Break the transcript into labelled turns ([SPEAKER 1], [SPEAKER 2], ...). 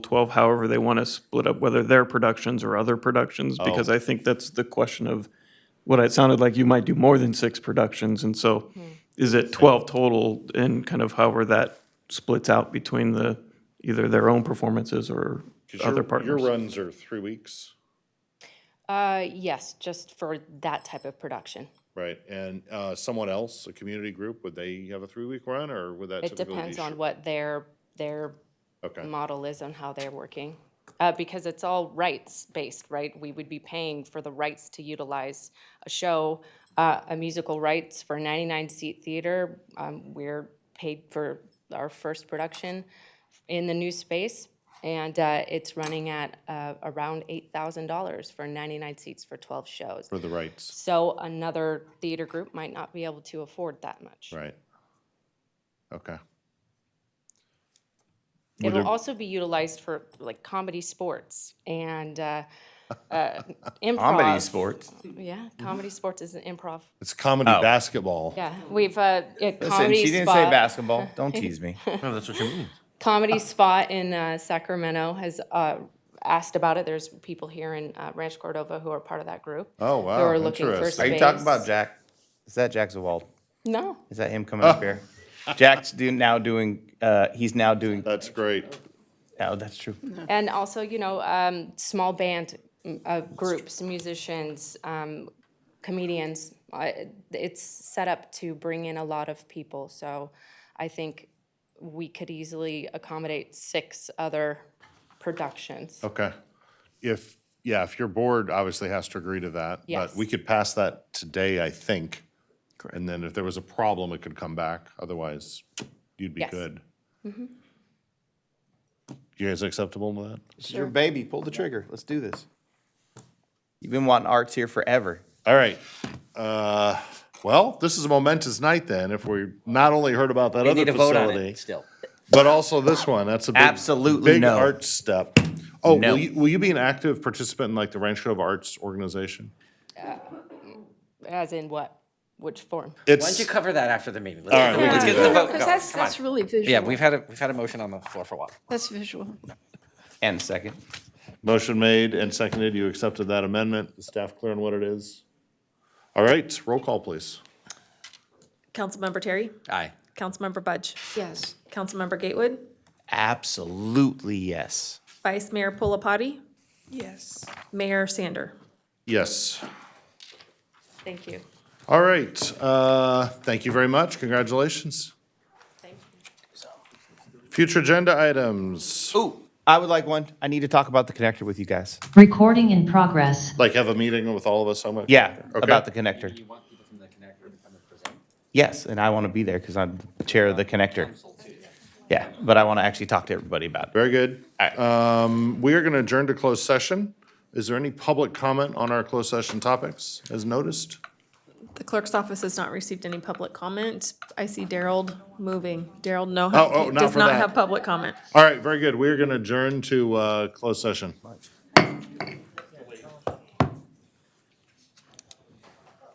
[SPEAKER 1] 12, however they want to split up, whether their productions or other productions, because I think that's the question of what it sounded like you might do more than six productions, and so is it 12 total and kind of however that splits out between the, either their own performances or
[SPEAKER 2] 'Cause your-
[SPEAKER 1] other partners?
[SPEAKER 2] Your runs are three weeks,
[SPEAKER 3] Uh, yes, just for that type of production.
[SPEAKER 2] right? And uh, someone else, a community group, would they have a three-week run, or would that
[SPEAKER 3] It
[SPEAKER 2] typically be?
[SPEAKER 3] depends on
[SPEAKER 2] short?
[SPEAKER 3] what their, their
[SPEAKER 2] Okay,
[SPEAKER 3] model is on how they're working. Uh, because it's all rights-based, right? We would be paying for the rights to utilize a show, uh, a musical rights for ninety-nine seat theater. Um, we're paid for our first production in the new space. And, uh, it's running at, uh, around eight thousand dollars for ninety-nine seats for twelve shows.
[SPEAKER 2] for the rights,
[SPEAKER 3] So another theater group might not be able to afford that much.
[SPEAKER 2] right? Okay.
[SPEAKER 3] It will also be utilized for like comedy sports and uh, uh, improv.
[SPEAKER 4] Comedy sports.
[SPEAKER 3] Yeah, comedy sports is an improv.
[SPEAKER 2] It's comedy
[SPEAKER 1] Oh.
[SPEAKER 2] basketball.
[SPEAKER 3] Yeah, we've uh, a
[SPEAKER 4] Listen,
[SPEAKER 3] comedy
[SPEAKER 4] she didn't say
[SPEAKER 3] spot.
[SPEAKER 4] basketball. Don't tease me.
[SPEAKER 5] No, that's what she means.
[SPEAKER 3] Comedy spot in uh, Sacramento has uh, asked about it. There's people here in uh, Ranch Cordova who are part of that group.
[SPEAKER 2] Oh,
[SPEAKER 3] Who
[SPEAKER 2] wow,
[SPEAKER 3] are looking for
[SPEAKER 2] interesting.
[SPEAKER 4] Are you talking about Jack? Is that Jack Zawald?
[SPEAKER 3] No,
[SPEAKER 4] Is that him coming up here? Jack's do, now doing. Uh, he's now doing.
[SPEAKER 2] That's great.
[SPEAKER 4] Oh, that's true.
[SPEAKER 3] and also you know um, small band mm, uh, groups, musicians, um, comedians. Uh, it's set up to bring in a lot of people, so I think we could easily accommodate six other productions.
[SPEAKER 2] Okay. If, yeah, if your board obviously has to agree to that. But
[SPEAKER 3] Yes.
[SPEAKER 2] we could pass that today, I think. And then if there was a problem, it could come back. Otherwise, you'd be
[SPEAKER 3] Yes. Mm-hmm.
[SPEAKER 2] good. You guys acceptable with that?
[SPEAKER 4] This is your baby. Pull the trigger. Let's do this. You've been wanting arts here forever.
[SPEAKER 2] All right. Uh, Well, this is a momentous night then, if we not only heard about that
[SPEAKER 4] We
[SPEAKER 2] other
[SPEAKER 4] need to vote on
[SPEAKER 2] facility,
[SPEAKER 4] it still.
[SPEAKER 2] but also this one. That's a big.
[SPEAKER 4] Absolutely
[SPEAKER 2] Big
[SPEAKER 4] no.
[SPEAKER 2] arts step. Oh,
[SPEAKER 4] No.
[SPEAKER 2] will you, will you be an active participant in like the Rancho Cordova Arts Organization?
[SPEAKER 3] As in what? Which form?
[SPEAKER 2] It's.
[SPEAKER 5] Why don't you cover that after the meeting? Let's, get, the, let's get the
[SPEAKER 6] Yeah,
[SPEAKER 5] vote
[SPEAKER 6] Because
[SPEAKER 5] going.
[SPEAKER 6] that's,
[SPEAKER 5] Come on.
[SPEAKER 6] that's really visual.
[SPEAKER 5] yeah, we've had a we've had a motion on the floor for a while.
[SPEAKER 6] That's visual.
[SPEAKER 4] And a second.
[SPEAKER 2] Motion made and seconded. You accepted that amendment. Is staff clear on what it is? All right, roll call, please.
[SPEAKER 7] Councilmember Terry?
[SPEAKER 5] Aye.
[SPEAKER 7] Councilmember Budge?
[SPEAKER 6] Yes.
[SPEAKER 7] Councilmember Gatewood?
[SPEAKER 4] Absolutely yes.
[SPEAKER 7] Vice Mayor Pulapati?
[SPEAKER 6] Yes.
[SPEAKER 7] Mayor Sander?
[SPEAKER 2] Yes.
[SPEAKER 3] Thank you.
[SPEAKER 2] All right, uh, thank you very much. Congratulations. Future agenda items,
[SPEAKER 4] Ooh, I would like one. I need to talk about the connector with you guys.
[SPEAKER 8] Recording in progress.
[SPEAKER 2] like have a meeting with all of us, how much?
[SPEAKER 4] Yeah,
[SPEAKER 2] Okay.
[SPEAKER 4] about the connector. Yes, and I want to be there because I'm the chair of the connector. Yeah, but I want to actually talk to everybody about it.
[SPEAKER 2] Very good.
[SPEAKER 4] Alright.
[SPEAKER 2] Um, we are gonna adjourn to closed session. Is there any public comment on our closed session topics as noticed?
[SPEAKER 7] The clerk's office has not received any public comment. I see Daryl moving. Daryl, no,
[SPEAKER 2] Oh, oh, not
[SPEAKER 7] does
[SPEAKER 2] for
[SPEAKER 7] not
[SPEAKER 2] that.
[SPEAKER 7] have public comment.
[SPEAKER 2] All right, very good. We are gonna adjourn to, uh, closed session.